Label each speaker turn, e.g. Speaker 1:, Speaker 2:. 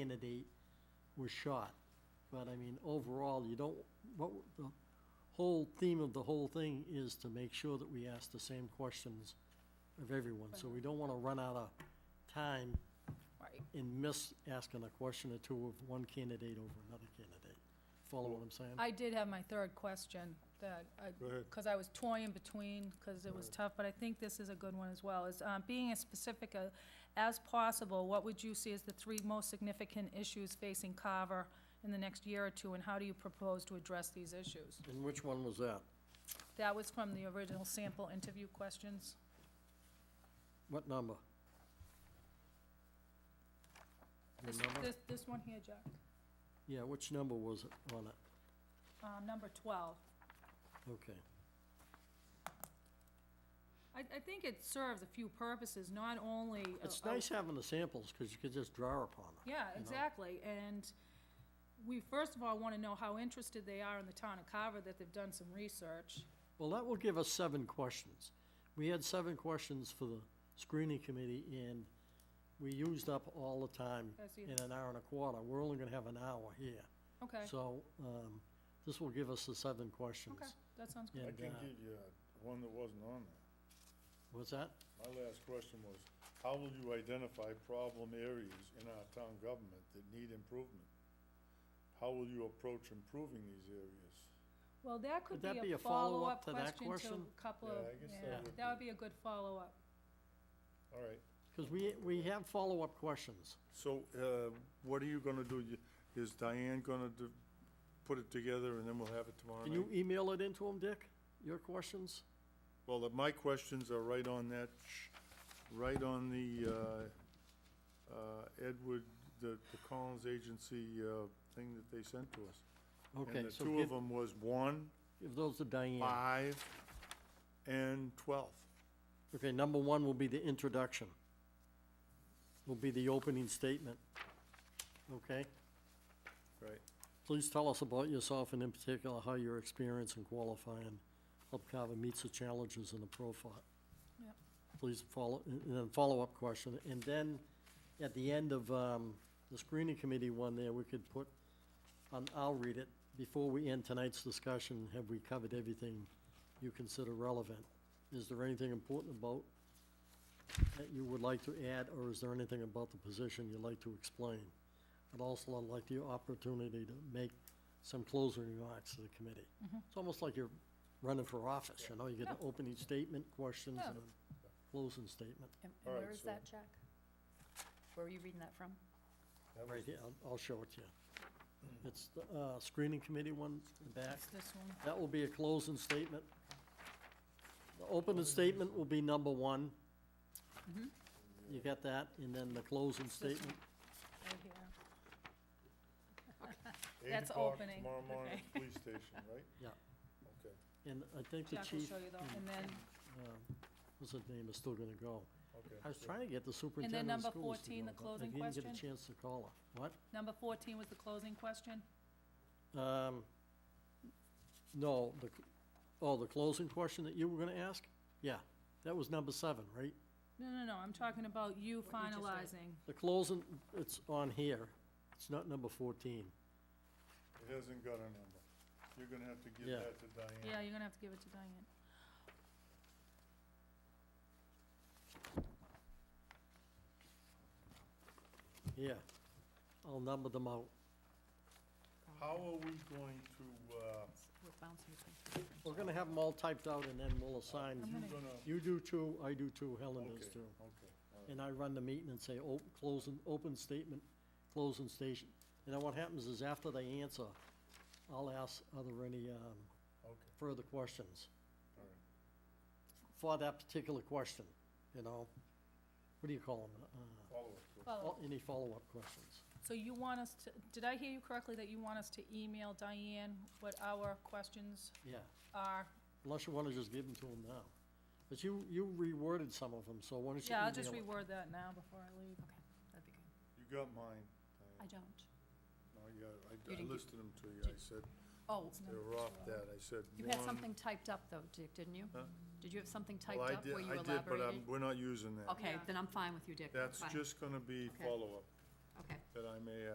Speaker 1: candidate was shot. But I mean, overall, you don't, what, the whole theme of the whole thing is to make sure that we ask the same questions of everyone. So we don't wanna run out of time
Speaker 2: Right.
Speaker 1: and miss asking a question or two of one candidate over another candidate. Follow what I'm saying?
Speaker 2: I did have my third question that I,
Speaker 3: Go ahead.
Speaker 2: because I was toying between, because it was tough, but I think this is a good one as well, is um, being as specific a- as possible, what would you see as the three most significant issues facing Carver in the next year or two, and how do you propose to address these issues?
Speaker 1: And which one was that?
Speaker 2: That was from the original sample interview questions.
Speaker 1: What number?
Speaker 2: This,
Speaker 1: Remember?
Speaker 2: this, this one here, Jack,
Speaker 1: Yeah, which number was it on it?
Speaker 2: um, number twelve.
Speaker 1: Okay.
Speaker 2: I, I think it serves a few purposes, not only. a-
Speaker 1: It's
Speaker 2: a-
Speaker 1: nice having the samples, because you could just draw upon them.
Speaker 2: Yeah,
Speaker 1: know?
Speaker 2: exactly, and we first of all wanna know how interested they are in the town of Carver, that they've done some research.
Speaker 1: Well, that will give us seven questions. We had seven questions for the screening committee, and we used up all the time
Speaker 2: That's you.
Speaker 1: in an hour and a quarter. We're only gonna have an hour here.
Speaker 2: Okay,
Speaker 1: So, um, this will give us the seven questions.
Speaker 2: okay, that sounds
Speaker 1: Yeah.
Speaker 2: good.
Speaker 3: I
Speaker 1: And,
Speaker 3: can
Speaker 1: uh,
Speaker 3: give you uh, one that wasn't on there.
Speaker 1: What's that?
Speaker 3: My last question was, how will you identify problem areas in our town government that need improvement? How will you approach improving these areas?
Speaker 2: Well, that could
Speaker 1: Would that
Speaker 2: be a follow-up
Speaker 1: to that
Speaker 2: question to
Speaker 1: question?
Speaker 2: a couple
Speaker 3: Yeah,
Speaker 2: of,
Speaker 3: I guess that
Speaker 2: yeah,
Speaker 3: would
Speaker 2: that would
Speaker 3: be-
Speaker 2: be a good follow-up.
Speaker 3: All right,
Speaker 1: Because we, we have follow-up questions.
Speaker 3: so, uh, what are you gonna do? You- Is Diane gonna do, put it together and then we'll have it tomorrow
Speaker 1: Can you
Speaker 3: night?
Speaker 1: email it into them, Dick? Your questions?
Speaker 3: Well, uh, my questions are right on that, sh- right on the, uh, uh, Edward, the, the Collins Agency, uh, thing that they sent to us.
Speaker 1: Okay,
Speaker 3: And the
Speaker 1: so
Speaker 3: two of
Speaker 1: give,
Speaker 3: them was one,
Speaker 1: give those to Diane.
Speaker 3: five, and twelve.
Speaker 1: Okay, number one will be the introduction. Will be the opening statement. Okay?
Speaker 3: Right.
Speaker 1: Please tell us about yourself and in particular how your experience in qualifying helped Carver meets the challenges in the profile.
Speaker 2: Yep.
Speaker 1: Please follow, and and then follow-up question, and then at the end of, um, the screening committee one there, we could put, um, I'll read it, before we end tonight's discussion, have we covered everything you consider relevant? Is there anything important about that you would like to add, or is there anything about the position you'd like to explain? I'd also like the opportunity to make some closing remarks to the committee. It's almost like you're running for office, you know, you get an opening statement, questions, and a closing statement.
Speaker 4: And
Speaker 3: All
Speaker 4: and
Speaker 3: right,
Speaker 4: where is
Speaker 3: so-
Speaker 4: that, Jack? Where were you reading that from?
Speaker 1: Right here, I'll, I'll show it to you. It's the, uh, screening committee one, in the back.
Speaker 2: It's this one.
Speaker 1: That will be a closing statement. The opening statement will be number one.
Speaker 2: Mm-hmm.
Speaker 1: You got that? And then the closing
Speaker 2: one.
Speaker 1: statement.
Speaker 2: Right here.
Speaker 3: Eight
Speaker 2: That's
Speaker 3: o'clock
Speaker 2: opening,
Speaker 3: Tomorrow morning,
Speaker 2: okay.
Speaker 3: at the police station, right?
Speaker 1: Yeah.
Speaker 3: Okay,
Speaker 1: And I think the
Speaker 2: Jack will
Speaker 1: chief,
Speaker 2: show you though, and then,
Speaker 1: um, what's his name, is still gonna go.
Speaker 3: okay.
Speaker 1: I was trying to get the
Speaker 2: then
Speaker 1: superintendent of
Speaker 2: number
Speaker 1: schools
Speaker 2: 14,
Speaker 1: to go, but
Speaker 2: the
Speaker 1: I
Speaker 2: closing
Speaker 1: didn't get a
Speaker 2: question?
Speaker 1: chance to call her. What?
Speaker 2: number fourteen was the closing question?
Speaker 1: Um, no, the, c- oh, the closing question that you were gonna ask? Yeah, that was number seven, right?
Speaker 2: No, no, no, I'm talking about you
Speaker 4: What you just read.
Speaker 2: finalizing.
Speaker 1: The closing, it's on here, it's not number fourteen.
Speaker 3: It hasn't got a number. You're gonna have to give
Speaker 1: Yeah.
Speaker 3: that to Diane.
Speaker 2: Yeah, you're gonna have to give it to Diane.
Speaker 1: Yeah, I'll number them out.
Speaker 3: How are we going to, uh,
Speaker 4: We're bouncing between two different-
Speaker 1: We're gonna have them all typed out and then we'll assign,
Speaker 2: I'm
Speaker 3: you
Speaker 2: gonna-
Speaker 3: gonna,
Speaker 1: you do two, I do two, Helen
Speaker 3: okay,
Speaker 1: does two.
Speaker 3: okay, all right.
Speaker 1: And I run the meeting and say, oh, closing, open statement, closing station. And then what happens is after they answer, I'll ask, are there any, um,
Speaker 3: okay,
Speaker 1: further questions?
Speaker 3: all right.
Speaker 1: for that particular question, you know? What do you call them?
Speaker 3: Follow up.
Speaker 2: Follow-up.
Speaker 1: Any follow-up questions?
Speaker 2: So you want us to, did I hear you correctly that you want us to email Diane what our questions
Speaker 1: Yeah,
Speaker 2: are?
Speaker 1: unless you want to just give them to them now. But you, you reworded some of them, so why don't you
Speaker 2: Yeah, I'll just
Speaker 1: email it?
Speaker 2: reword that now before I leave.
Speaker 4: Okay, that'd be good.
Speaker 3: You got mine,
Speaker 4: I
Speaker 3: Diane.
Speaker 4: don't.
Speaker 3: No, you got-
Speaker 4: You
Speaker 3: I, I
Speaker 4: didn't get-
Speaker 3: listed them to you. I said,
Speaker 4: Oh,
Speaker 3: they were off that. I said one.
Speaker 4: you had something typed up though, Dick, didn't you?
Speaker 3: Huh?
Speaker 4: Did you have something typed
Speaker 3: Well, I
Speaker 4: up
Speaker 3: did,
Speaker 4: where you
Speaker 3: I did, but I'm,
Speaker 4: elaborated?
Speaker 3: we're not using that.
Speaker 4: Okay,
Speaker 2: Yeah.
Speaker 4: then I'm fine with you, Dick.
Speaker 3: That's
Speaker 4: Fine.
Speaker 3: just gonna be
Speaker 4: Okay.
Speaker 3: follow-up.
Speaker 4: Okay.
Speaker 3: that I may uh,